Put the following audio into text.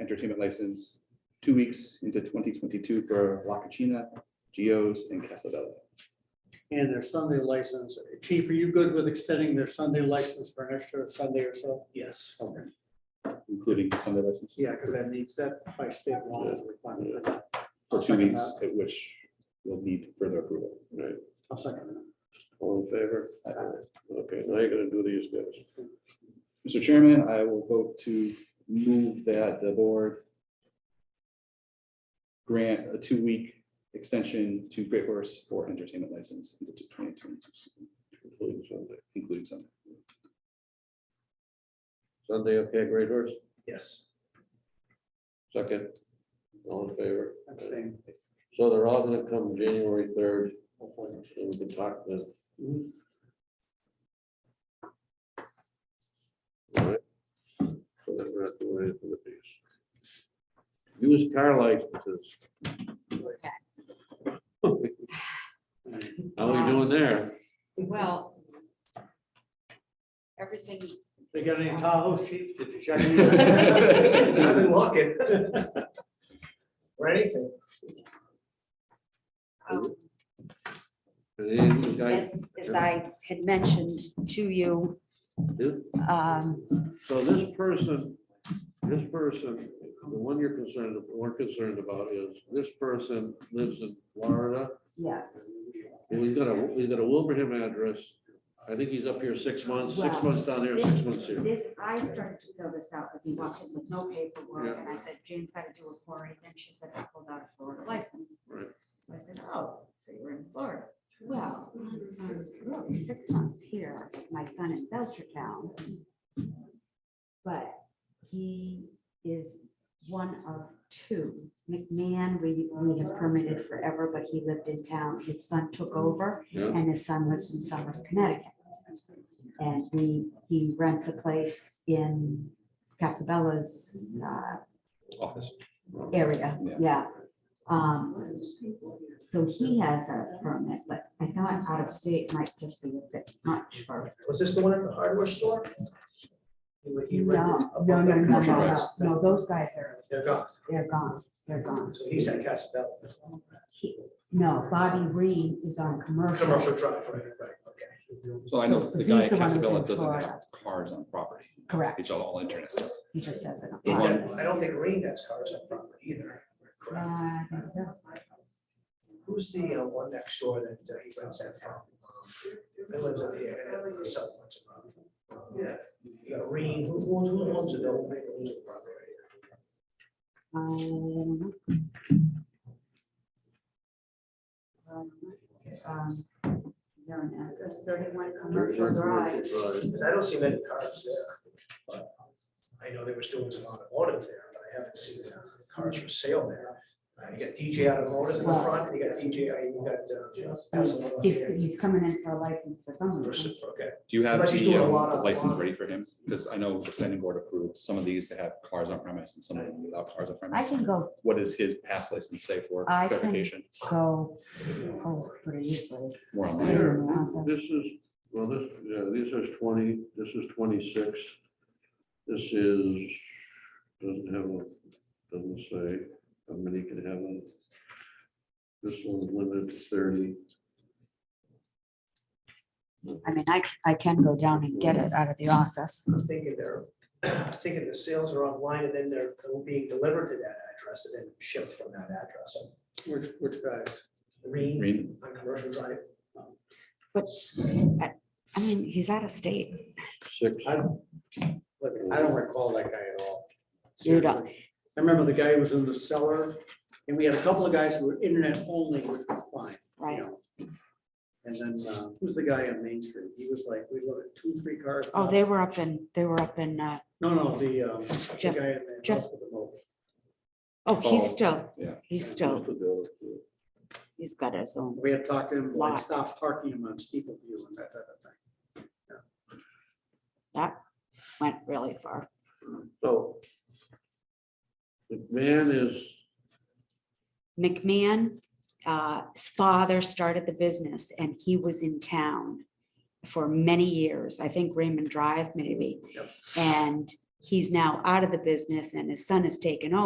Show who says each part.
Speaker 1: entertainment license two weeks into twenty twenty-two for La Cucina, Geo's, and Casabella.
Speaker 2: and their Sunday license. Chief, are you good with extending their Sunday license for an extra Sunday or so?
Speaker 3: Yes.
Speaker 2: Okay.
Speaker 1: including Sunday license.
Speaker 2: Yeah, because that needs that by state law is a requirement. for that.
Speaker 1: For
Speaker 2: I'll
Speaker 1: two
Speaker 2: second
Speaker 1: weeks,
Speaker 2: that.
Speaker 1: at which will need further approval.
Speaker 3: Right,
Speaker 2: I'll second
Speaker 3: all in favor? Okay, now you're gonna do these guys.
Speaker 2: that.
Speaker 1: Mr. Chairman, I will vote to move that the board grant a two-week extension to Great Horse for entertainment license into twenty twenty-two,
Speaker 3: including Sunday.
Speaker 1: including Sunday.
Speaker 3: Sunday, okay, great horse,
Speaker 2: Yes.
Speaker 3: second, all in favor?
Speaker 2: I'm saying.
Speaker 3: So they're all gonna come January third, and we can talk to them. all right? So then we're not doing anything with these. Used car licenses, how are we doing there?
Speaker 4: Well. Everything,
Speaker 2: They got any Tahoe chief? Did you check?
Speaker 5: I've been looking. For anything.
Speaker 4: um,
Speaker 3: Are any of these guys-
Speaker 4: as, as I had mentioned to you, um,
Speaker 3: So this person, this person, the one you're concerned, we're concerned about is, this person lives in Florida.
Speaker 4: yes.
Speaker 3: And We've got a, we've got a Wilbraham address. I think he's up here six months, six
Speaker 4: Wow.
Speaker 3: months down there, six months here.
Speaker 4: This, I started to fill this out because he walked in with no paperwork and I said, Jane's got to do a quarry. Then she said, I pulled out a Florida license.
Speaker 3: Right.
Speaker 4: So I said, oh, so you were in Florida. Well, I was really six months here, with my son in Belchertown. But he is one of two. McMahon, we, we have permitted forever, but he lived in town. His son took over
Speaker 3: Yeah.
Speaker 4: and his son lives in Somers, Connecticut. And he, he rents a place in Casabella's, uh,
Speaker 1: Office.
Speaker 4: area,
Speaker 1: Yeah.
Speaker 4: yeah. Um, so he has a permit, but I thought out of state might just be a bit much for.
Speaker 5: Was this the one at the hardware store? He- he rented
Speaker 4: No,
Speaker 5: a-
Speaker 4: no, no, no, no,
Speaker 1: commercial
Speaker 4: no,
Speaker 1: drives.
Speaker 4: no, those guys are,
Speaker 5: They're gone.
Speaker 4: they're gone, they're gone.
Speaker 5: So he's at Casabella.
Speaker 4: He- No, Bobby Reed is on commercial.
Speaker 5: Commercial drive, right, right, okay.
Speaker 1: So I know the
Speaker 4: He's
Speaker 1: guy at
Speaker 4: the one who's
Speaker 1: Casabella
Speaker 4: in
Speaker 1: doesn't have
Speaker 4: Florida.
Speaker 1: cars on property.
Speaker 4: Correct,
Speaker 1: It's all- all internet stuff.
Speaker 4: he just has an.
Speaker 1: The one-
Speaker 5: I don't think Green has cars on property either. correct? Who's the uh, one next door that uh, he rents that from? He lives up here in the south. Yeah. You got Green, who who- who owns it, don't make a property.
Speaker 4: Um, um, there are now- There's thirty-one commercial drives.
Speaker 5: Because I don't see many cars there. but I know they were doing some automotive there, but I haven't seen the cars for sale there. Uh, You got DJ automotive in the front, you got DJ, uh, you got. uh, Tesla over
Speaker 4: He's,
Speaker 5: there.
Speaker 4: he's coming in for a license for something.
Speaker 5: For s- Okay,
Speaker 1: Do you have
Speaker 5: But he's doing
Speaker 1: the
Speaker 5: a
Speaker 1: um,
Speaker 5: lot
Speaker 1: the
Speaker 5: of-
Speaker 1: license ready for him? Because I know the planning board approved some of these to have cars on premise and some of them without cars on
Speaker 4: I
Speaker 1: premise.
Speaker 4: can go,
Speaker 1: What does his past license say for
Speaker 4: I can-
Speaker 1: clarification?
Speaker 4: go, oh, pretty easily.
Speaker 1: More on
Speaker 3: Here,
Speaker 4: Yeah.
Speaker 3: this is, well, this, yeah, this is twenty, this is twenty-six. This is, doesn't have, a doesn't say how many can have. on it. This one's limited to thirty.
Speaker 4: I mean, I, I can go down and get it out of the office.
Speaker 5: I'm thinking they're, I'm thinking the sales are online and then they're they're being delivered to that address and then shipped from that address.
Speaker 2: Which, which guys?
Speaker 5: Green
Speaker 1: Read.
Speaker 5: on commercial drive.
Speaker 4: But, I I mean, he's out of state.
Speaker 3: Six.
Speaker 2: I don't, look, I don't recall that guy at all.
Speaker 4: You don't.
Speaker 2: Seriously. I remember the guy who was in the cellar, and we had a couple of guys who were internet only, which was fine. you
Speaker 4: Right.
Speaker 2: know. And then, uh, who's the guy on Main Street? He was like, we looked at two, three cars.
Speaker 4: Oh, they were up in, they were up in, uh,
Speaker 2: No, no, the, um, the guy
Speaker 4: Jeff-
Speaker 2: in the
Speaker 4: Jeff-
Speaker 2: house with the mobile.
Speaker 4: oh,
Speaker 1: Oh,
Speaker 4: he's still,
Speaker 1: yeah.
Speaker 4: he's still,
Speaker 3: Well,
Speaker 4: he's got his own.
Speaker 2: We had talked to him, like,
Speaker 4: Lot.
Speaker 2: stop parking him on Steeple View and that type of thing.
Speaker 4: That went really far.
Speaker 3: So. McMahon is,
Speaker 4: McMahon, uh, his father started the business and he was in town for many years, I think Raymond Drive maybe.
Speaker 2: Yep.
Speaker 4: And he's now out of the business and his son has taken over.